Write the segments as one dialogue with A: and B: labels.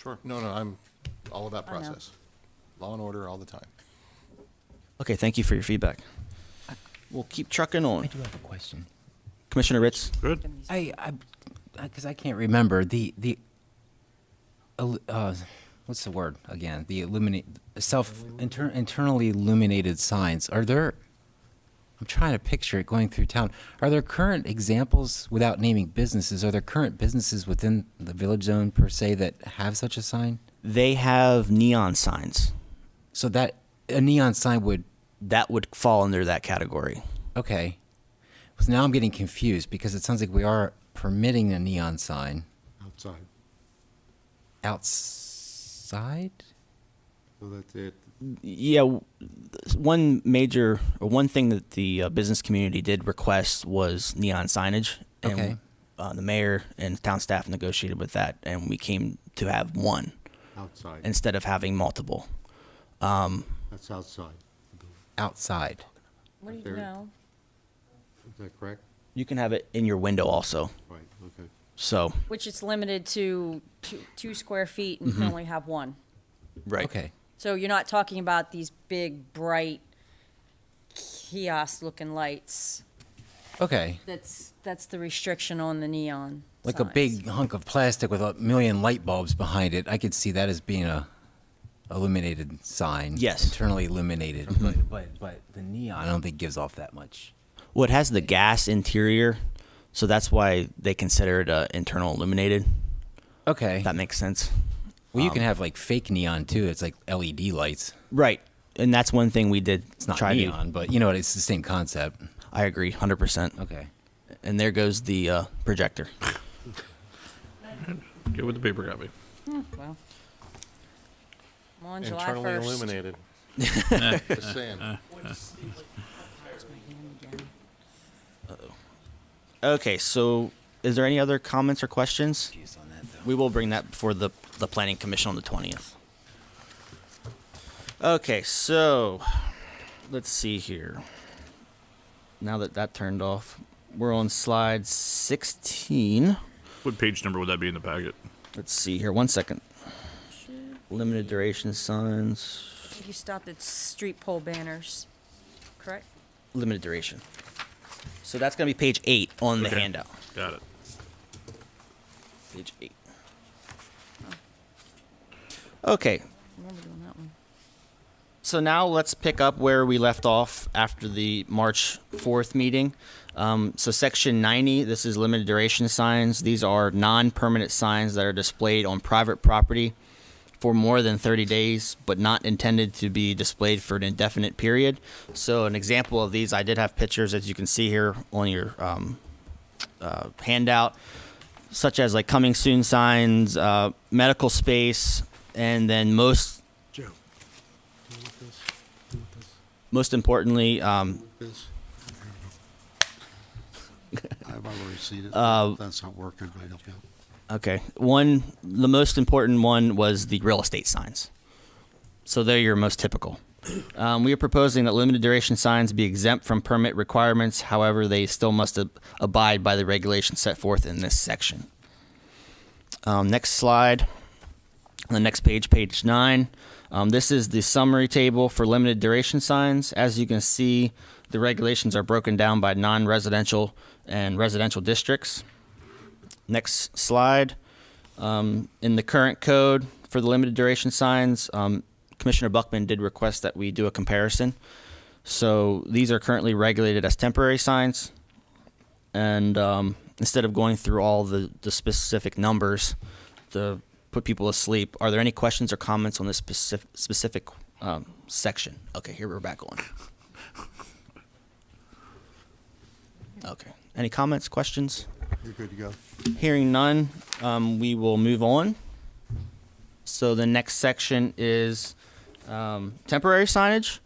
A: Sure. No, no, I'm all about
B: I know.
A: process. Law and order all the time.
C: Okay, thank you for your feedback. We'll keep trucking
D: I
C: on.
D: do have a question.
C: Commissioner Ritz,
E: Good.
D: I, I, because I can't remember the the. il- Uh, what's the word again? The illuminate self inter, internally illuminated signs. Are there? I'm trying to picture it going through town. Are there current examples without naming businesses? Are there current businesses within the village zone per se that have such a sign?
C: they have neon signs.
D: So that a neon sign would
C: That would fall under that category.
D: okay. So now I'm getting confused because it sounds like we are permitting a neon sign.
F: outside.
D: outside
F: So that's it.
C: Yeah, w- one major or one thing that the uh, business community did request was neon signage. And,
D: Okay.
C: Uh, the mayor and town staff negotiated with that, and we came to have one
F: Outside.
C: instead of having multiple.
F: That's outside.
D: outside
B: What do you
F: There-
B: know?
F: Is that correct?
C: You can have it in your window also.
F: Right, okay.
C: So
B: Which it's limited to two, two square feet and you can
D: Mm-hmm.
B: only have one.
C: right.
D: okay
B: So you're not talking about these big, bright kiosk-looking lights.
D: okay
B: That's, that's the restriction on the neon
D: like a
B: signs.
D: big hunk of plastic with a million light bulbs behind it i could see that as being a illuminated sign
C: Yes. Mm-hmm.
D: internally illuminated but, but but the neon i don't think gives off that much
C: Well, it has the gas interior, so that's why they consider it uh, internal illuminated.
D: okay
C: If that um, makes sense.
D: well you can have like fake neon too it's like led lights
C: Right. And that's one thing we did
D: it's not
C: try to-
D: neon but you know what it's the same concept
C: I agree, hundred percent.
D: okay
C: And there goes the uh, projector.
E: Get with the paper copy.
B: Well, I'm on July
A: Internally
B: 1st.
A: illuminated. Just saying.
C: Okay, so is there any other comments or questions? We will bring that before the the planning commission on the twentieth. Okay, so let's see here. Now that that turned off, we're on slide sixteen.
E: What page number would that be in the packet?
C: Let's see here. One second. Limited duration signs.
B: You stopped at street pole banners, correct?
C: Limited duration. So that's gonna be page eight on the
E: Okay.
C: handout.
E: Got it.
C: Page eight. Okay,
B: I remember doing that one.
C: so now let's pick up where we left off after the March 4th meeting. Um, so, section 90, this is limited duration signs. These are non permanent signs that are displayed on private property for more than 30 days, but not intended to be displayed for an indefinite period. So, an example of these, I did have pictures, as you can see here on your um, uh, handout such as like coming soon signs, uh, medical space, and then most most importantly, um,
F: This. I've already seen it. That's not working right up now.
C: okay, one the most important one was the real estate signs. So they're your most typical. Um, we are proposing that limited duration signs be exempt from permit requirements. However, they still must ab- abide by the regulations set forth in this section. Um, next slide. On the next page, page nine. Um, this is the summary table for limited duration signs. As you can see, the regulations are broken down by non residential and residential districts. Next slide. Um, in the current code for the limited duration signs, um, Commissioner Buckman did request that we do a comparison. So these are currently regulated as temporary signs. And um, instead of going through all the, the specific numbers to put people asleep, are there any questions or comments on this specific, specific um, section? Okay, here we're back on. Okay. Any comments, questions?
F: You're good to go.
C: Hearing none, um, we will move on. So the next section is um, temporary signage.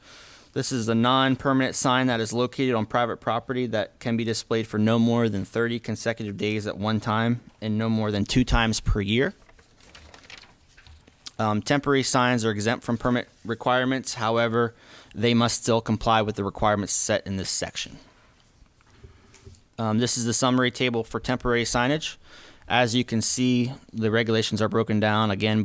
C: This is a non-permanent sign that is located on private property that can be displayed for no more than 30 consecutive days at one time and no more than two times per year. Um, temporary signs are exempt from permit requirements. However, they must still comply with the requirements set in this section. Um, this is the summary table for temporary signage. As you can see, the regulations are broken down again